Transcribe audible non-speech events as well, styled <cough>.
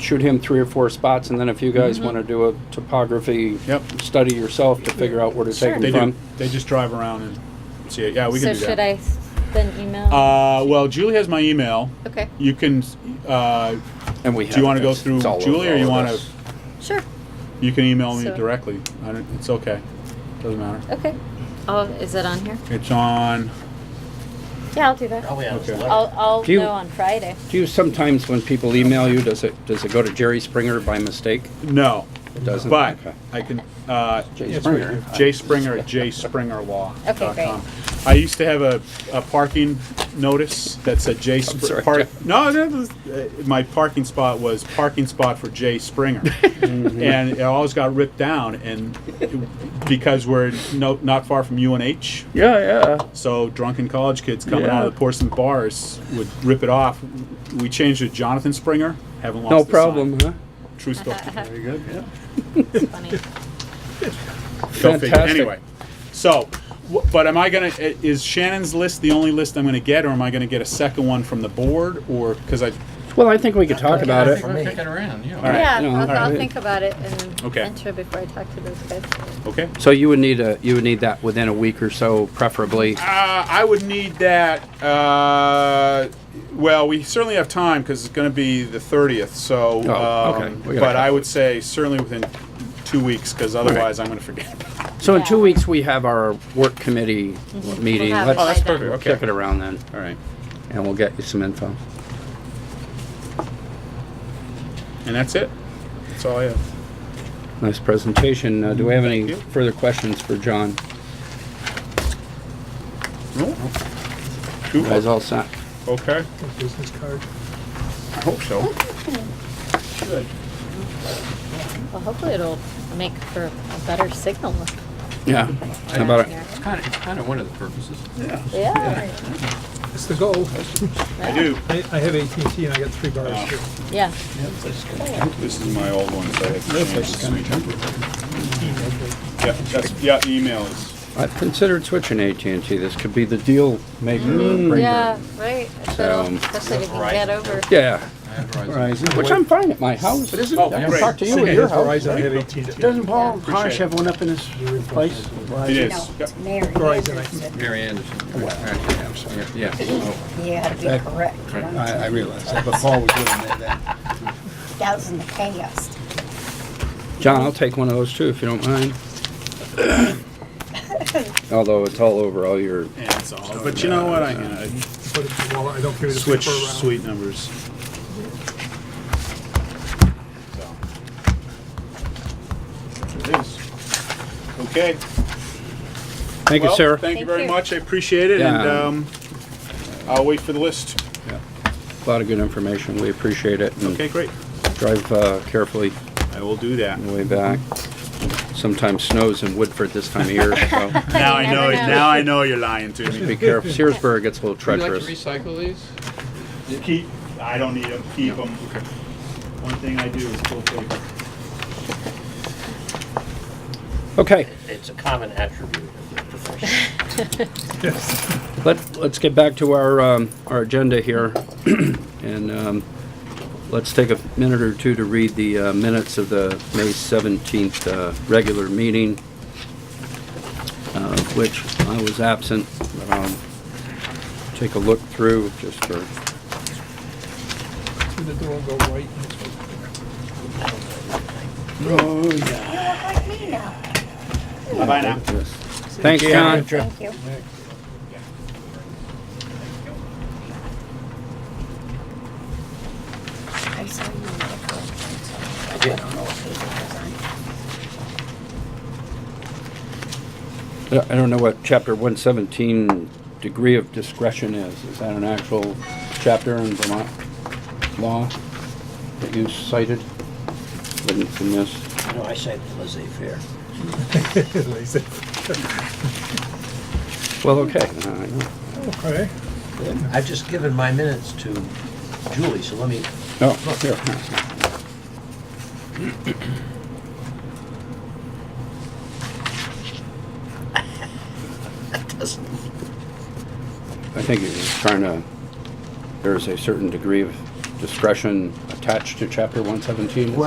shoot him three or four spots, and then if you Mm-hmm. guys want to do a topography Yep. study yourself to figure out where to Sure. take They them do. from. They just drive around and see it. Yeah, Oh, we So can do should that. I s- then email? Uh, well, Julie has my email. Okay, You can. Uh, And we do you want to go through Julie, or you want to? sure, You can email me So- directly. I don't, it's okay. Doesn't matter. okay. Oh, is it on here? It's on. Yeah, I'll do that. Probably on his Okay. letter. I'll, I'll Do you- know on <laughs> Friday. Do you sometimes, when people email you, does it, does it go to Jerry Springer by mistake? No, It doesn't? but Okay. I can. Uh, Jay Springer. Jay Springer at jspringerlaw.com. Okay, great. I used to have a, a parking notice that said Jay Spr- sorry, park- Jeff. No, that was, uh, my parking spot was parking spot for Jay Springer, Mm-hmm. and it always got ripped down, and it- because we're no, not far from UNH, Yeah, yeah. so drunken college kids coming out Yeah. of the porcelain bars would rip it off. We changed it to Jonathan Springer. Haven't lost No the problem, sign. huh? True story. Very good, yeah. It's funny. Go figure. Fantastic. Anyway, so, wh- but am I gonna, i- is Shannon's list the only list I'm gonna get, or am I gonna get a second one from the board, or, because I, Well, I think we could talk about I it. think we're kicking around, you know. right. Yeah, no, I'll, I'll alright. think about it and Okay. enter before I talk to those guys. okay? So you would need a, you would need that within a week or so, preferably. Uh, I would need that, uh, well, we certainly have time, because it's gonna be the thirtieth, so, Oh, okay. um, We got a but I couple would say certainly within two weeks, because otherwise I'm gonna forget. <laughs> So in two weeks, we have our work committee meeting. Mm-hmm. We'll have Let's it by then. Oh, perfect. check Okay. it around then, All right, and we'll get you some info. and that's it? That's all I have. Nice presentation. Uh, Do we have any Thank you. further questions for John? No? You Guys all set? Okay, business card. I hope so. Good. Well, hopefully it'll make for a better signal. Yeah. How about it? It's kind of, it's kind of one of the purposes. Yeah, It's the goal. I do. I, I have AT&T and I got three bars here. yeah. This is my old one, so I have to change this to Yeah, that's, yeah, the email is, I've considered switching AT&T. This could be the deal maker. Mm. Yeah, right. So- Especially especially if you can Verizon. get over. Yeah, I have Verizon. Verizon, which I'm fine at my house. It isn't, Oh, great. talk to you at Okay. your house. Verizon, I have AT&T. Doesn't Paul Appreciate Harsh it. have one up in his place? it is. No, Yep. it's Mary Verizon, I- Anderson. Mary Anderson. Yeah, Yeah, oh, You had to be correct. you know? I, I realize that, but Paul was doing that, that. That was in the past. John, I'll take one of those too, if you don't mind. Although it's all over all your, Yeah, it's all, but you know what, I, I Put it in the wallet. I don't carry the switch paper around. suite numbers. So. It is. Okay. thank you, well, sir. Thank you Thank very you. much, I appreciate it, and, Yeah. um, I'll wait for the list. A lot of good information. We appreciate it. and Okay, great, Drive uh, carefully I will do that. on the way back. Sometimes snows in Woodford this time of year, so Now I know, never know. now I know you're lying to me. be careful. Searsburg gets a little Would you like treacherous. to recycle these? Keep, I don't need them, keep them. One thing I do is pull paper. Okay, It's a common attribute of the profession. let, let's get back to our, um, our agenda here. <clears throat> And, um, let's take a minute or two to read the, uh, minutes of the May seventeenth, uh, regular meeting, uh, which I was absent. Um, Take a look through just for, Through the door and go right. and it's- You look like me now. Bye-bye now. thanks, John. Thank you. I saw you in the first one, so I don't know what page it was on. Yeah, I don't know what chapter one seventeen degree of discretion is. Is that an actual chapter in Vermont law that you cited? Written from this? No, I say laissez-faire. <laughs> They said, Well, okay. uh, I know. Okay. I've just given my minutes to Julie, so let me, Oh, here. I think he was trying to, there is a certain degree of discretion attached attached to chapter one seventeen.